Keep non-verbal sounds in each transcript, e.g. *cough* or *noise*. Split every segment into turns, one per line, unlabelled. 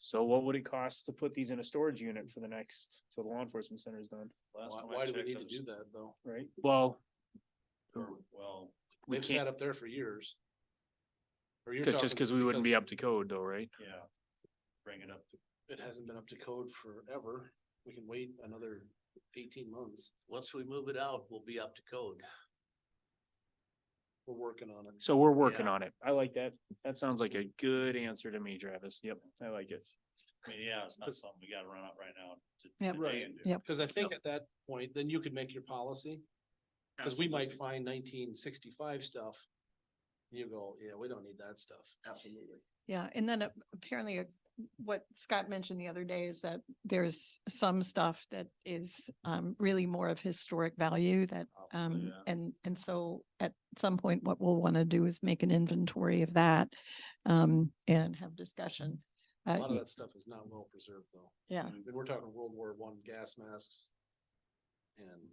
So what would it cost to put these in a storage unit for the next, till the law enforcement center is done,
Last
Why,
time I
why do we
checked,
need
it
to
was-
do that though?
right? Well,
or, Well,
we
They've
can't,
sat up there for years. Or you're
just
talking
because we wouldn't be up to code though, right?
yeah. Bring it up to
It hasn't been up to code forever. We can wait another eighteen months. Once we move it out, we'll be up to code. We're working on it.
So we're working
Yeah.
on it. I like that. That sounds like a good answer to me, Travis. Yep, I like it.
I mean, yeah, it's not
'Cause-
something we gotta run up right now. to-
Yep.
today and do.
Yep.
Cause I think at that point, then you could make your policy, cause we might find nineteen sixty-five stuff. You go, yeah, we don't need that stuff. Absolutely.
Yeah, and then a- apparently uh, what Scott mentioned the other day is that there's some stuff that is um really more of historic value that
Oh,
um
yeah.
and and so at some point, what we'll want to do is make an inventory of that um and have discussion.
A
Uh,
lot of
y-
that stuff is not well preserved though.
yeah,
I mean, we're talking World War One gas masks. And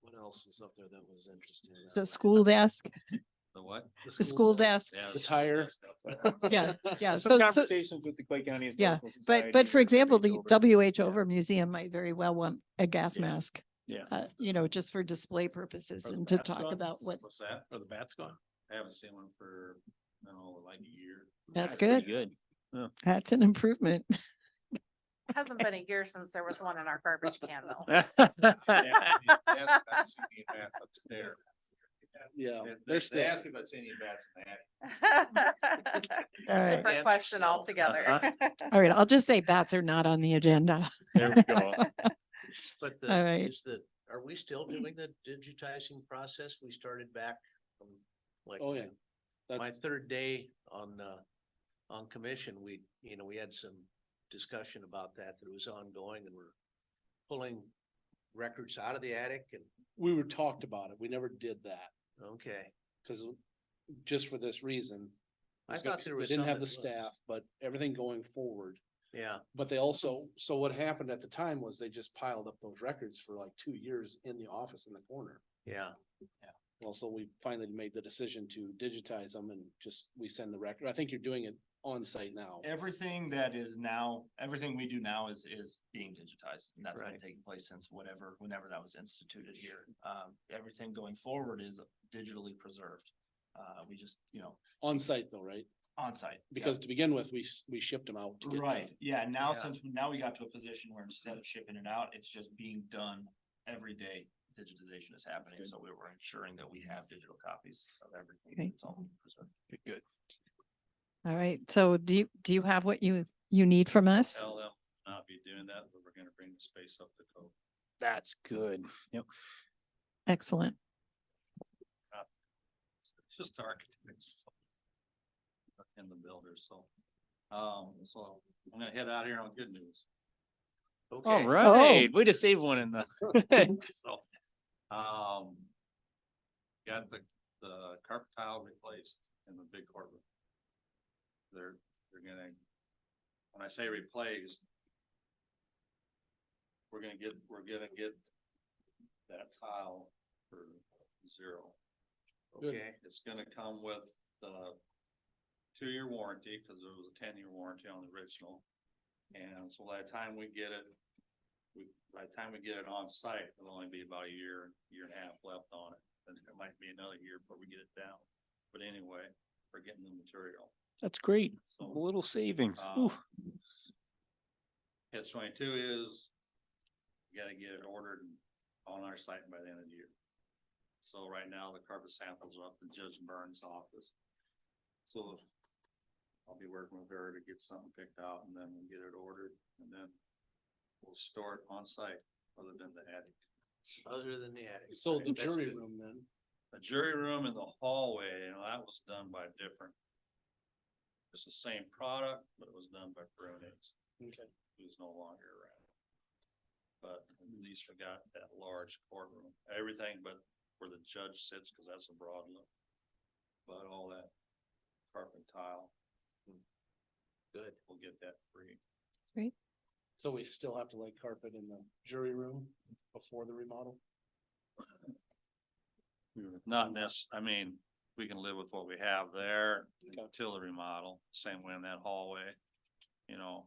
what else was up there that was interesting? that
the
night?
school desk,
The what?
the school desk.
Yeah,
The tire.
*laughs* Yeah,
*laughs*
yeah.
Some
So, so,
conversations with the Clay County.
Yeah,
Historical
but,
Society
but for
or
example, the
Reach Over.
WH over museum might very well want a gas
Yeah.
mask.
Yeah.
Uh, you know, just for display purposes
Or the
and to
bats
talk
gone?
about what,
What's that?
Are the bats gone?
I haven't seen one for, no, like a year.
That's
pretty
good.
Good.
that's an improvement.
It Hasn't been a year since there was one in our garbage can
*laughs*
though.
*laughs* Yeah,
They're
they're
still. They
still,
asked me if I'd seen any bats in that.
*laughs*
All right.
Different question altogether. *laughs*
All right. I'll just say bats are not on the agenda.
There we go.
But
All
the,
right.
is the, are we still doing the digitizing process? We started back from like
oh yeah.
my
That's,
third day on, uh, on commission, we, you know, we had some discussion about that, that it was ongoing and we're pulling records out of the attic and,
we were talked about it. We never did that,
okay.
cause just for this reason.
I
there's gonna
thought
be-
there
They
was
didn't
some
have the
that was.
staff, but everything going forward.
Yeah,
But they also, so what happened at the time was they just piled up those records for like two years in the office in the corner.
yeah.
Well, so we finally made the decision to digitize them and just, we send the record. I think you're doing it on site now.
*laughs* Everything that is now, everything we do now is, is being digitized and that's been
Right.
taking place since whatever, whenever that was instituted here. Um, everything going forward is digitally preserved. Uh, we just, you know,
On site though, right?
on site
Because to begin with, we, s- we shipped them out. to get done.
Right, yeah, now
Yeah.
since, now we got to a position where instead of shipping it out, it's just being done every day. Digitization is happening, so we were ensuring that we have digital copies of
Okay.
everything. It's all preserved.
Good, Good.
All right. So do you, do you have what you, you need from us?
Tell them not be doing that, but we're gonna bring the space up to code.
That's good. Yep.
Excellent.
It's just architects. And the builders, so. Um, so I'm gonna head out here on good news.
All
Oh,
Okay.
right. Way to save one in the.
*laughs* So, um, got the, the carpet tile replaced in the big courtroom. They're, they're gonna, when I say replaced, we're gonna get, we're gonna get that tile for zero.
Okay,
It's gonna come with the two-year warranty, cause there was a ten-year warranty on the original. And so by the time we get it, we, by the time we get it on site, it'll only be about a year, year and a half left on it. And it might be another year before we get it down, but anyway, we're getting the material,
That's great. A
so.
little savings.
um,
Ooh,
Catch twenty-two is, you gotta get it ordered and on our site by the end of the year. So right now, the carpet samples are up in Judge Burns' office. So I'll be working with her to get something picked out and then we'll get it ordered and then we'll store it on site other than the attic.
other than the attic.
So
right,
the
that's
jury
good.
room then,
The jury room and the hallway, you know, that was done by different. It's the same product, but it was done by Brunings.
Okay.
Who's no longer around. But at least we got that large courtroom, everything but where the judge sits, cause that's a broad look. But all that carpet tile. Good. We'll get that free.
so we still have to lay carpet in the jury room before the remodel?
Not necess, I mean, we can live with what we have there
Okay.
until the remodel, same way in that hallway. You know,